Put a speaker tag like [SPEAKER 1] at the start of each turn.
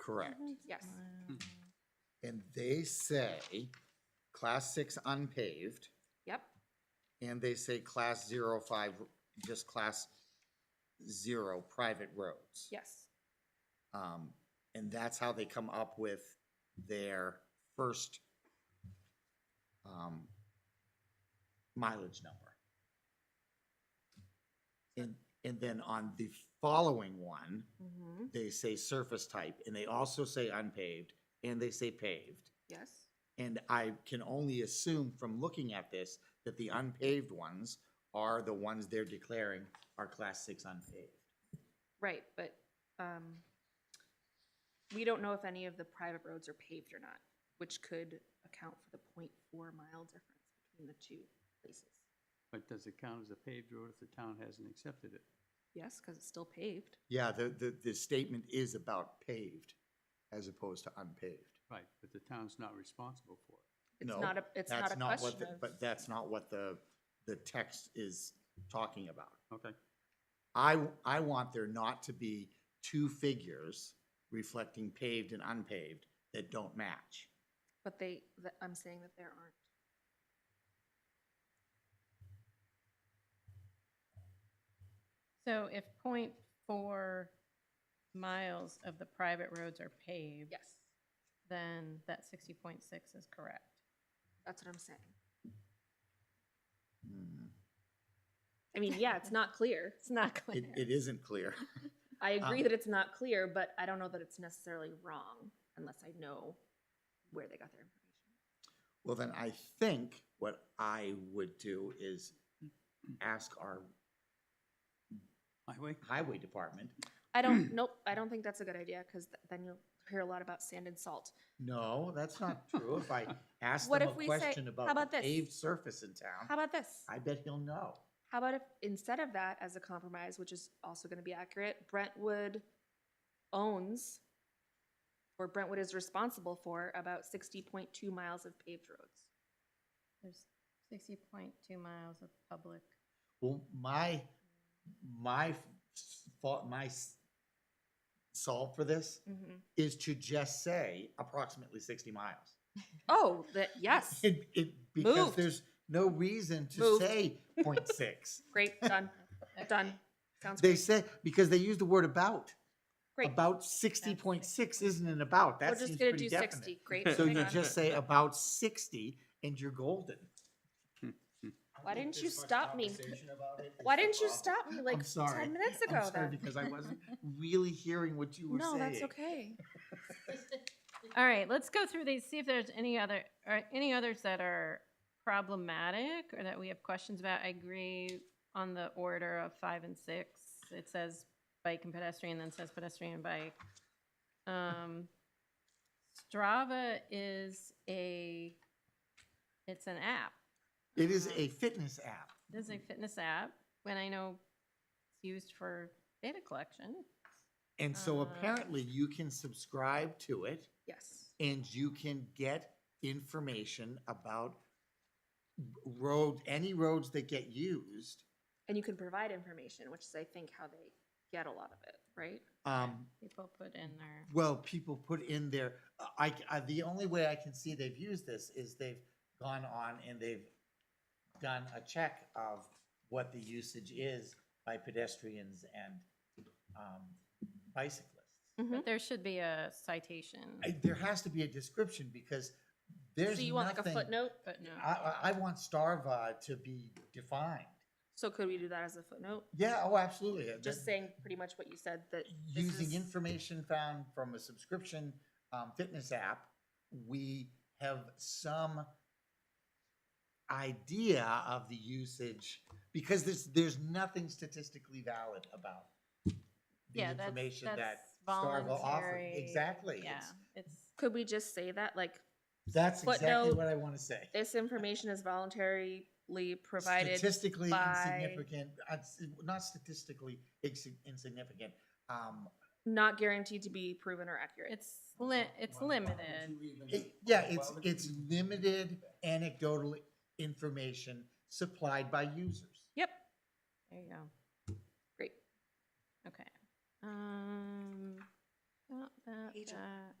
[SPEAKER 1] Correct.
[SPEAKER 2] Mm-hmm. Yes.
[SPEAKER 1] And they say class six unpaved,
[SPEAKER 2] Yep.
[SPEAKER 1] and they say class zero five, just class zero private roads.
[SPEAKER 2] Yes.
[SPEAKER 1] Um, and that's how they come up with their first um, mileage number. And, and then on the following one,
[SPEAKER 2] Mm-hmm.
[SPEAKER 1] they say surface type, and they also say unpaved, and they say paved.
[SPEAKER 2] Yes.
[SPEAKER 1] And I can only assume from looking at this that the unpaved ones are the ones they're declaring are class six unpaved.
[SPEAKER 2] Right, but um, we don't know if any of the private roads are paved or not, which could account for the 0.4 mile difference between the two places.
[SPEAKER 3] But does it count as a paved road if the town hasn't accepted it?
[SPEAKER 2] Yes, because it's still paved.
[SPEAKER 1] Yeah, the, the, the statement is about paved as opposed to unpaved.
[SPEAKER 3] Right, but the town's not responsible for it.
[SPEAKER 2] It's
[SPEAKER 1] No,
[SPEAKER 2] not a, it's not
[SPEAKER 1] That's
[SPEAKER 2] a
[SPEAKER 1] not what
[SPEAKER 2] question
[SPEAKER 1] the-
[SPEAKER 2] of.
[SPEAKER 1] But that's not what the, the text is talking about.
[SPEAKER 3] Okay,
[SPEAKER 1] I, I want there not to be two figures reflecting paved and unpaved that don't match.
[SPEAKER 2] But they, that- I'm saying that there aren't.
[SPEAKER 4] So if point four miles of the private roads are paved,
[SPEAKER 2] Yes,
[SPEAKER 4] then that sixty point six is correct.
[SPEAKER 2] that's what I'm saying.
[SPEAKER 1] Hmm.
[SPEAKER 2] I mean, yeah, it's not clear.
[SPEAKER 4] It's not
[SPEAKER 1] It, it isn't clear.
[SPEAKER 2] I agree
[SPEAKER 1] Um,
[SPEAKER 2] that it's not clear, but I don't know that it's necessarily wrong unless I know where they got their information.
[SPEAKER 1] Well, then I think what I would do is ask our
[SPEAKER 3] highway?
[SPEAKER 1] highway department.
[SPEAKER 2] I don't, nope, I don't think that's a good idea, because then you'll hear a lot about sand and salt.
[SPEAKER 1] No, that's not true. If I ask
[SPEAKER 2] What
[SPEAKER 1] them a
[SPEAKER 2] if we say-
[SPEAKER 1] question
[SPEAKER 2] how
[SPEAKER 1] about
[SPEAKER 2] about
[SPEAKER 1] the
[SPEAKER 2] this?
[SPEAKER 1] paved surface in
[SPEAKER 2] How
[SPEAKER 1] town,
[SPEAKER 2] about this?
[SPEAKER 1] I bet he'll know.
[SPEAKER 2] How about if, instead of that, as a compromise, which is also gonna be accurate, Brentwood owns, or Brentwood is responsible for about sixty point two miles of paved roads.
[SPEAKER 4] There's sixty point two miles of public.
[SPEAKER 1] Well, my, my thought, my s- solve for this
[SPEAKER 4] Mm-hmm.
[SPEAKER 1] is to just say approximately sixty miles.
[SPEAKER 2] Oh, that, yes,
[SPEAKER 1] It, it, because
[SPEAKER 2] Moved.
[SPEAKER 1] there's no reason to
[SPEAKER 2] Moved.
[SPEAKER 1] say point six.
[SPEAKER 2] great, done, done, sounds
[SPEAKER 1] They
[SPEAKER 2] great,
[SPEAKER 1] say, because they use the word about.
[SPEAKER 2] great.
[SPEAKER 1] About sixty point six isn't an about,
[SPEAKER 2] We're
[SPEAKER 1] that seems
[SPEAKER 2] just gonna
[SPEAKER 1] pretty
[SPEAKER 2] do
[SPEAKER 1] definite.
[SPEAKER 2] sixty, great,
[SPEAKER 1] So
[SPEAKER 2] hang
[SPEAKER 1] you
[SPEAKER 2] on.
[SPEAKER 1] just say about sixty and you're golden.
[SPEAKER 2] Why didn't you stop me? Why didn't you stop me like
[SPEAKER 1] I'm sorry.
[SPEAKER 2] ten minutes
[SPEAKER 1] I'm
[SPEAKER 2] ago
[SPEAKER 1] sorry,
[SPEAKER 2] then?
[SPEAKER 1] because I wasn't really hearing what you were saying.
[SPEAKER 2] No, that's okay.
[SPEAKER 4] All right, let's go through these, see if there's any other, or any others that are problematic or that we have questions about. I agree on the order of five and six. It says bike and pedestrian, then says pedestrian and bike. Um, Strava is a, it's an app.
[SPEAKER 1] It is a fitness app.
[SPEAKER 4] This is a fitness app, when I know it's used for data collection.
[SPEAKER 1] And so
[SPEAKER 4] Uh.
[SPEAKER 1] apparently you can subscribe to it
[SPEAKER 2] Yes.
[SPEAKER 1] and you can get information about road, any roads that get used.
[SPEAKER 2] And you can provide information, which is, I think, how they get a lot of it, right?
[SPEAKER 1] Um,
[SPEAKER 4] People put in their.
[SPEAKER 1] well, people put in their, I, I, the only way I can see they've used this is they've gone on and they've done a check of what the usage is by pedestrians and, um, bicyclists.
[SPEAKER 4] But there should be a citation,
[SPEAKER 1] Mm-hmm. I, there has to be a description because there's
[SPEAKER 2] So you want like a
[SPEAKER 1] nothing-
[SPEAKER 2] footnote?
[SPEAKER 4] but no.
[SPEAKER 1] I, I, I want Starva to be defined.
[SPEAKER 2] So could we do that as a footnote?
[SPEAKER 1] Yeah, oh, absolutely. Uh,
[SPEAKER 2] Just
[SPEAKER 1] that-
[SPEAKER 2] saying pretty much what you said, that this
[SPEAKER 1] Using
[SPEAKER 2] is-
[SPEAKER 1] information found from a subscription, um, fitness app, we have some idea of the usage, because there's, there's nothing statistically valid about the
[SPEAKER 4] Yeah, that's-
[SPEAKER 1] information that
[SPEAKER 4] that's
[SPEAKER 1] Starva offered.
[SPEAKER 4] voluntary.
[SPEAKER 1] Exactly.
[SPEAKER 4] Yeah,
[SPEAKER 1] it's-
[SPEAKER 4] it's,
[SPEAKER 2] could we just say that, like,
[SPEAKER 1] That's exactly
[SPEAKER 2] Footnote.
[SPEAKER 1] what I want to say.
[SPEAKER 2] this information is voluntarily provided?
[SPEAKER 1] statistically
[SPEAKER 2] by-
[SPEAKER 1] insignificant, uh, s- not statistically insi- insignificant. Um,
[SPEAKER 2] Not guaranteed to be proven or accurate.
[SPEAKER 4] it's li- it's limited.
[SPEAKER 1] it- yeah, it's it's limited anecdotal information supplied by users.
[SPEAKER 2] Yep,
[SPEAKER 4] There you go.
[SPEAKER 2] great.
[SPEAKER 4] Okay. Um, That, uh, that,
[SPEAKER 2] Page-
[SPEAKER 4] that.